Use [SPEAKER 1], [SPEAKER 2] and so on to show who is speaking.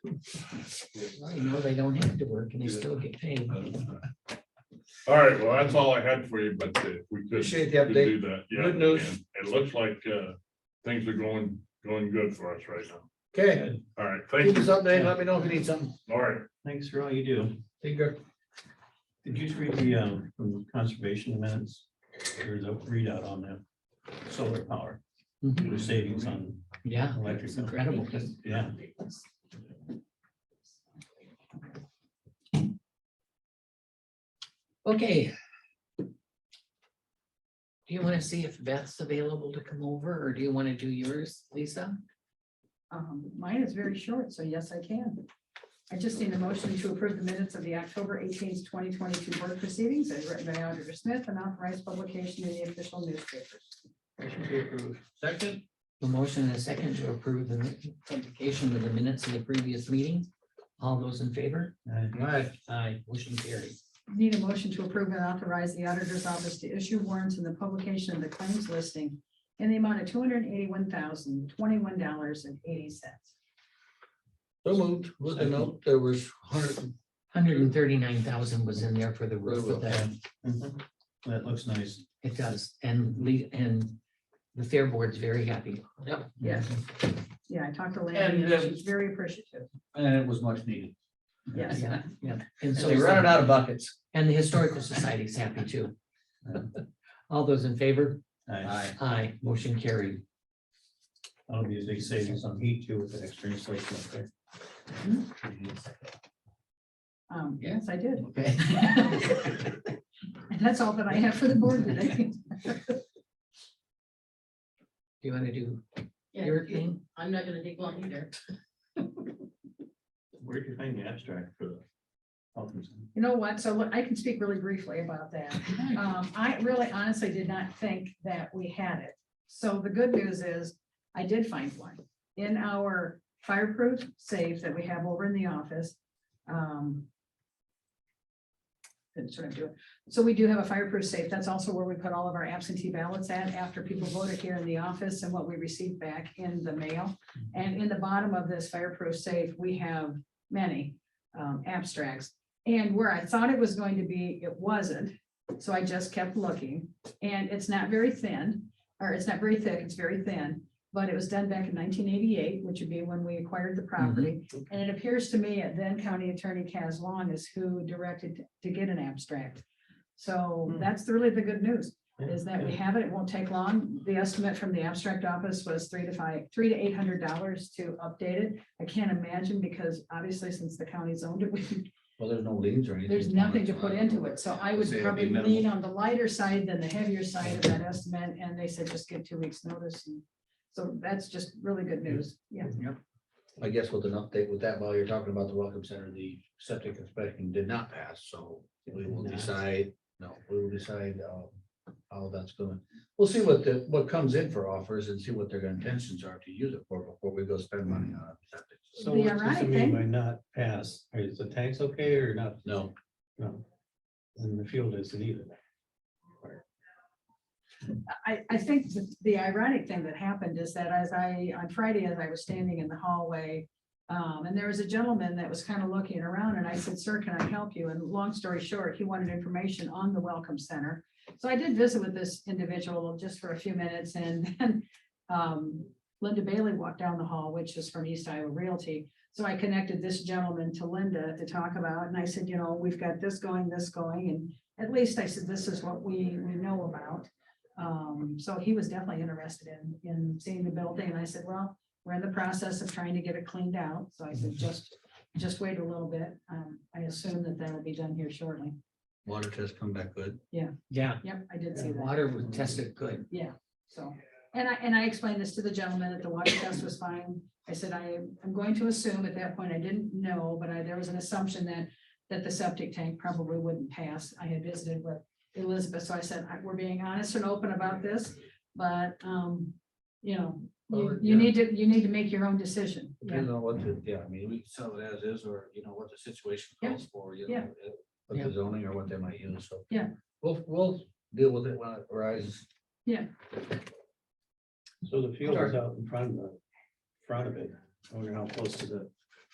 [SPEAKER 1] Well, you know, they don't have to work and they still get paid.
[SPEAKER 2] All right, well, that's all I had for you, but uh, we could.
[SPEAKER 3] Appreciate the
[SPEAKER 2] could do
[SPEAKER 3] update.
[SPEAKER 2] that, yeah,
[SPEAKER 3] Good news.
[SPEAKER 2] and It looks like uh, things are going, going good for us right now.
[SPEAKER 3] Okay,
[SPEAKER 2] All right,
[SPEAKER 3] keep
[SPEAKER 2] thank
[SPEAKER 3] us
[SPEAKER 2] you.
[SPEAKER 3] updated. Let
[SPEAKER 1] Oh,
[SPEAKER 3] me know if you need something.
[SPEAKER 2] All right,
[SPEAKER 4] Thanks for all you do.
[SPEAKER 3] Take care.
[SPEAKER 4] Did you read the, um, from conservation minutes? There's a readout on that solar power,
[SPEAKER 1] Mhm.
[SPEAKER 4] the savings on
[SPEAKER 1] Yeah,
[SPEAKER 4] electric.
[SPEAKER 1] it's incredible.
[SPEAKER 4] Yeah.
[SPEAKER 1] Okay. Do you want to see if Beth's available to come over or do you want to do yours, Lisa?
[SPEAKER 5] Um, mine is very short, so yes, I can. I just need a motion to approve the minutes of the October eighteenth, twenty twenty-two board proceedings as written by Auditor Smith and authorized publication in the official newspapers.
[SPEAKER 3] Motion to approve. Second,
[SPEAKER 1] A motion and a second to approve the mi- publication of the minutes of the previous meeting. All those in favor?
[SPEAKER 4] I-
[SPEAKER 3] aye,
[SPEAKER 1] Aye, motion carried.
[SPEAKER 5] Need a motion to approve and authorize the auditor's office to issue warrants in the publication of the claims listing in the amount of two hundred and eighty-one thousand, twenty-one dollars and eighty cents.
[SPEAKER 3] so moved. With the note, there was hundred,
[SPEAKER 1] Hundred and thirty-nine thousand was in there for the roof of that.
[SPEAKER 4] Mhm. That looks nice.
[SPEAKER 1] It does, and Lee, and the fair board's very happy.
[SPEAKER 6] Yep.
[SPEAKER 5] Yeah. Yeah, I talked to Lanny,
[SPEAKER 6] And,
[SPEAKER 5] and
[SPEAKER 6] um,
[SPEAKER 5] she's very appreciative.
[SPEAKER 6] And it was much needed.
[SPEAKER 5] Yes.
[SPEAKER 1] Yeah, yeah. And so,
[SPEAKER 6] So you're running out of buckets.
[SPEAKER 1] and the historical society's happy too. All those in favor?
[SPEAKER 4] I-
[SPEAKER 1] Aye, motion carried.
[SPEAKER 4] That'll be a big savings on heat too with the extra insulation up there.
[SPEAKER 5] Um, yes, I did.
[SPEAKER 1] Okay.
[SPEAKER 5] And that's all that I have for the board today.
[SPEAKER 1] Do you want to do
[SPEAKER 7] Yeah,
[SPEAKER 1] your
[SPEAKER 7] you-
[SPEAKER 1] thing?
[SPEAKER 7] I'm not gonna take long either.
[SPEAKER 4] Where'd you find the abstract for the? Altonson?
[SPEAKER 5] You know what? So look, I can speak really briefly about that. Um, I really honestly did not think that we had it. So the good news is I did find one in our fireproof safe that we have over in the office. Um. couldn't sort of do it. So we do have a fireproof safe. That's also where we put all of our absentee ballots at after people voted here in the office and what we received back in the mail. And in the bottom of this fireproof safe, we have many um, abstracts. And where I thought it was going to be, it wasn't. So I just kept looking and it's not very thin, or it's not very thick, it's very thin. But it was done back in nineteen eighty-eight, which would be when we acquired the property. And it appears to me that then County Attorney Kaz Long is who directed to get an abstract. So that's really the good news, is that we have it. It won't take long. The estimate from the abstract office was three to five, three to eight hundred dollars to update it. I can't imagine because obviously since the county's owned it, we
[SPEAKER 6] Well, there's no leaves or anything.
[SPEAKER 5] there's nothing to put into it, so I would
[SPEAKER 6] Say it'll be
[SPEAKER 5] probably
[SPEAKER 6] minimal.
[SPEAKER 5] lean on the lighter side than the heavier side of that estimate, and they said just give two weeks notice. and So that's just really good news, yeah.
[SPEAKER 3] I guess with an update with that, while you're talking about the welcome center, the septic inspection did not pass, so we will
[SPEAKER 4] Nice.
[SPEAKER 3] decide, no, we will decide, uh, how that's going. We'll see what the, what comes in for offers and see what their intentions are to use it for before we go spend money on septic.
[SPEAKER 6] Mm.
[SPEAKER 4] So
[SPEAKER 5] The
[SPEAKER 4] what does
[SPEAKER 5] ironic
[SPEAKER 4] it mean
[SPEAKER 5] thing-
[SPEAKER 4] by not pass? Is the tanks okay or not?
[SPEAKER 3] No,
[SPEAKER 4] No. And the field isn't either.
[SPEAKER 5] I, I think the- the ironic thing that happened is that as I, on Friday, as I was standing in the hallway, um, and there was a gentleman that was kind of looking around, and I said, sir, can I help you? And long story short, he wanted information on the Welcome Center. So I did visit with this individual just for a few minutes, and then um, Linda Bailey walked down the hall, which is from East Iowa Realty. So I connected this gentleman to Linda to talk about, and I said, you know, we've got this going, this going, and at least I said, this is what we, we know about. Um, so he was definitely interested in, in seeing the building, and I said, well, we're in the process of trying to get it cleaned out, so I said, just, just wait a little bit. Um, I assume that that'll be done here shortly.
[SPEAKER 3] water test come back good.
[SPEAKER 1] Yeah,
[SPEAKER 5] Yep, I did see
[SPEAKER 1] the
[SPEAKER 5] that,
[SPEAKER 1] water was tested good.
[SPEAKER 5] yeah, so. And I, and I explained this to the gentleman that the water test was fine. I said, I am going to assume at that point, I didn't know, but I, there was an assumption that, that the septic tank probably wouldn't pass. I had visited with Elizabeth, so I said, I- we're being honest and open about this, but, um, you know, you,
[SPEAKER 3] Well, yeah.
[SPEAKER 5] you need to, you need to make your own decision. Yeah,
[SPEAKER 3] Depends on what, the- yeah, I mean, we can sell it as is, or, you know, what the situation
[SPEAKER 5] Yeah.
[SPEAKER 3] calls for, you
[SPEAKER 5] Yeah.
[SPEAKER 3] know. uh, What the zoning or what they might use, so.
[SPEAKER 5] Yeah.
[SPEAKER 3] We'll, we'll deal with it when it arises.
[SPEAKER 4] So the field is out in front of the, front of it. I wonder how close to the